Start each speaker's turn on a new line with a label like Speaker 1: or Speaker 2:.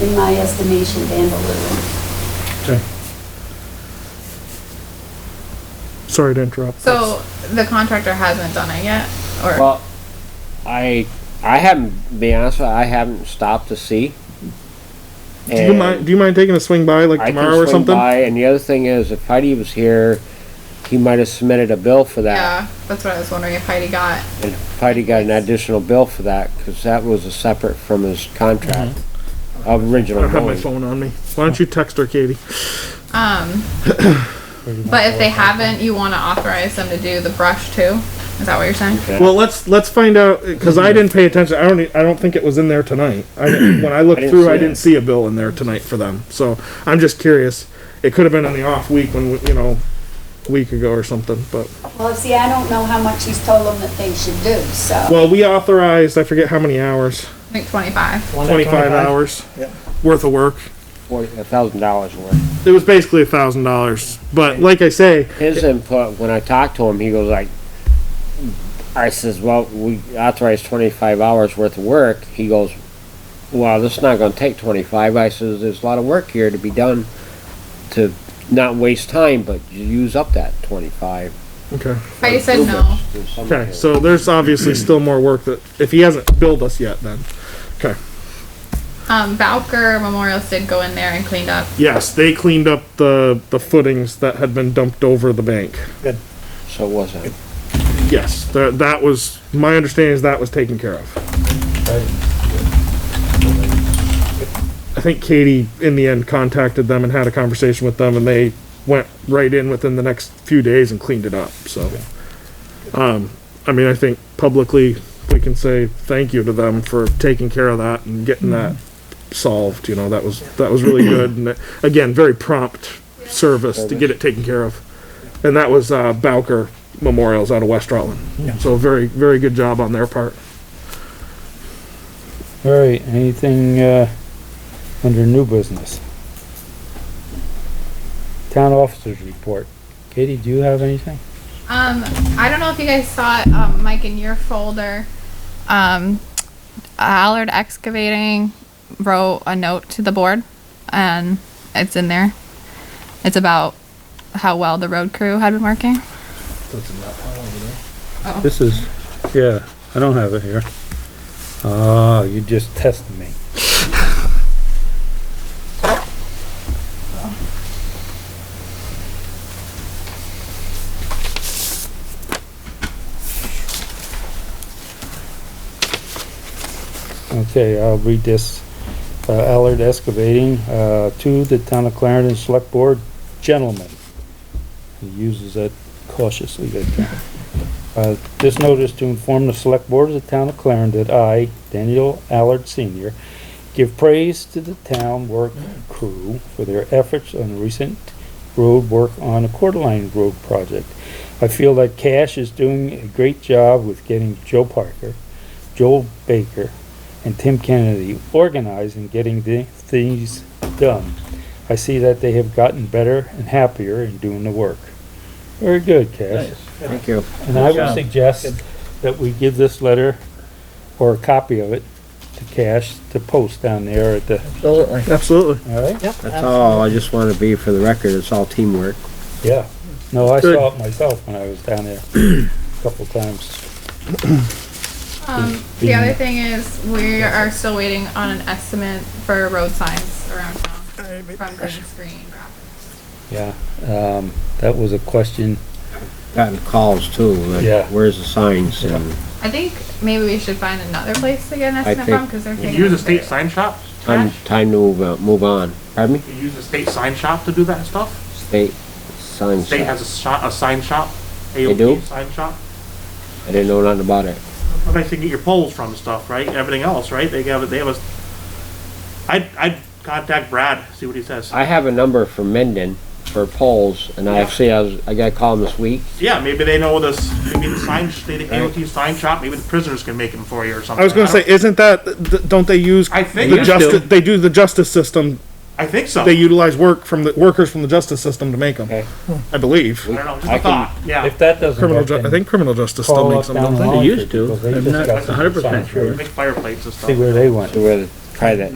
Speaker 1: in my estimation, vandalism.
Speaker 2: Okay. Sorry to interrupt.
Speaker 3: So the contractor hasn't done it yet, or
Speaker 4: Well, I I haven't to be honest. With you, I haven't stopped to see.
Speaker 2: Do you mind, do you mind taking a swing by like
Speaker 4: I can
Speaker 2: tomorrow or
Speaker 4: swing
Speaker 2: something?
Speaker 4: by, and the other thing is, if Heidi was here, he might have submitted a bill for that,
Speaker 3: yeah, that's what I was wondering if Heidi got.
Speaker 4: and Heidi got an additional bill for that because that was a separate from his contract.
Speaker 2: Mm-hmm. I
Speaker 4: Original
Speaker 2: don't have my
Speaker 4: mowing.
Speaker 2: phone on me. Why don't you text her, Katie?
Speaker 3: Um, but if they haven't, you want to authorize them to do the brush too. Is that what you're saying?
Speaker 4: Yeah.
Speaker 2: Well, let's, let's find out, cause I didn't pay attention. I don't, e- I don't think it was in there tonight. I, didn't- when I looked
Speaker 4: I didn't
Speaker 2: through,
Speaker 4: see
Speaker 2: I
Speaker 4: it.
Speaker 2: didn't see a bill in there tonight for them. So I'm just curious. It could have been on the off week when, we- you know, a week ago or something, but.
Speaker 1: Well, see, I don't know how much he's told them that they should do, so.
Speaker 2: Well, we authorized, I forget how many hours,
Speaker 3: I think 25.
Speaker 2: twenty-five hours
Speaker 5: Yeah.
Speaker 2: worth of work.
Speaker 4: Forty a thousand dollars worth.
Speaker 2: It was basically a thousand dollars, but like I say,
Speaker 4: His input when I talked to him, he goes like, I says, well, we authorized twenty five hours worth of work. He goes, well, this is not going to take twenty five. I says, there's a lot of work here to be done, to not waste time, but you use up that twenty five.
Speaker 2: okay,
Speaker 3: Heidi said no.
Speaker 2: okay, so there's obviously still more work that, if he hasn't billed us yet, then, okay.
Speaker 3: Um, Valker Memorials did go in there and cleaned up.
Speaker 2: Yes, they cleaned up the, the footings that had been dumped over the bank.
Speaker 4: So it wasn't.
Speaker 2: Yes, that, that was, my understanding is that was taken care of. I think Katie, in the end, contacted them and had a conversation with them, and they went right in within the next few days and cleaned it up, so. Um, I mean, I think publicly, we can say thank you to them for taking care of that and getting that solved, you know, that was, that was really good, and that- again, very prompt service to get it taken care of. And that was, uh, Bowker Memorials out of West Rutland,
Speaker 5: Yeah.
Speaker 2: so very, very good job on their part.
Speaker 5: All right, anything, uh, under new business? Town officers report. Katie, do you have anything?
Speaker 3: Um, I don't know if you guys saw it, um, Mike, in your folder. Um, Allard Excavating wrote a note to the board, and it's in there. It's about how well the road crew had been working.
Speaker 5: This is, yeah, I don't have it here. Oh, you just tested me. Okay, I'll read this. Uh, Allard Excavating, uh, to the Town of Clarendon Select Board, gentlemen. He uses that cautiously, that term. Uh, This notice to inform the Select Board of the Town of Clarendon that I, Daniel Allard Senior, give praise to the town work crew for their efforts on the recent road work on the Coeur d'Alene Road project. I feel that Cash is doing a great job with getting Joe Parker, Joel Baker, and Tim Kennedy organized and getting the things done. I see that they have gotten better and happier in doing the work. Very good, Cash.
Speaker 4: Thank you.
Speaker 5: And I would suggest that we give this letter, or a copy of it, to Cash to post down there at the,
Speaker 4: Absolutely.
Speaker 2: Absolutely.
Speaker 5: alright?
Speaker 4: That's all. I just want to be for the record. It's all teamwork.
Speaker 5: Yeah. No, I
Speaker 2: Good.
Speaker 5: saw it myself when I was down there a couple times.
Speaker 3: Um, the other thing is, we are still waiting on an estimate for road signs around town from Green Screen.
Speaker 5: Yeah, um, that was a question.
Speaker 4: Gotten calls too. Like,
Speaker 5: Yeah.
Speaker 4: Where's the signs?
Speaker 5: Yeah.
Speaker 4: And
Speaker 3: I think maybe we should find another place to get an estimate
Speaker 4: think-
Speaker 3: from, cause they're
Speaker 6: You
Speaker 3: taking.
Speaker 6: use a state sign shop?
Speaker 4: time, time to move, uh, move on. Pardon me?
Speaker 6: You use a state sign shop to do that stuff?
Speaker 4: State sign
Speaker 6: State
Speaker 4: shop.
Speaker 6: has a shop, a sign shop?
Speaker 4: They do?
Speaker 6: AOP Sign shop?
Speaker 4: I didn't know nothing about it.
Speaker 6: Well, they can get your poles from and stuff, right? Everything else, right? They have, a- they have a, I'd, I'd contact Brad, see what he says.
Speaker 4: I have a number for Mendon for polls, and I
Speaker 6: Yeah.
Speaker 4: actually, I was, I got a call him this week.
Speaker 6: Yeah, maybe they know this, maybe the sign, state AOT sign shop, maybe the prisoners can make them for you or something.
Speaker 2: I was gonna
Speaker 6: don't-
Speaker 2: say, isn't that, th- don't they use?
Speaker 6: I think
Speaker 2: The
Speaker 6: they
Speaker 2: justice,
Speaker 4: do.
Speaker 2: they do the justice system,
Speaker 6: I think so.
Speaker 2: they
Speaker 6: I
Speaker 2: utilize work from the, workers from the justice system to make them,
Speaker 4: Okay.
Speaker 2: I believe.
Speaker 6: don't know, just
Speaker 4: I
Speaker 6: a
Speaker 4: can-
Speaker 6: thought, yeah.
Speaker 5: If that doesn't
Speaker 2: Criminal,
Speaker 5: work,
Speaker 2: ju- I
Speaker 5: then
Speaker 2: think criminal justice still
Speaker 5: call
Speaker 2: makes
Speaker 5: up
Speaker 2: them,
Speaker 5: down
Speaker 2: don't
Speaker 5: the
Speaker 2: they?
Speaker 5: line.
Speaker 7: used to.
Speaker 5: because they
Speaker 7: I'm
Speaker 5: just
Speaker 7: not
Speaker 5: got some
Speaker 7: 100%
Speaker 5: signs for it.
Speaker 7: sure.
Speaker 6: Make fireplates and stuff.
Speaker 5: See where they went.
Speaker 4: So we're gonna try that.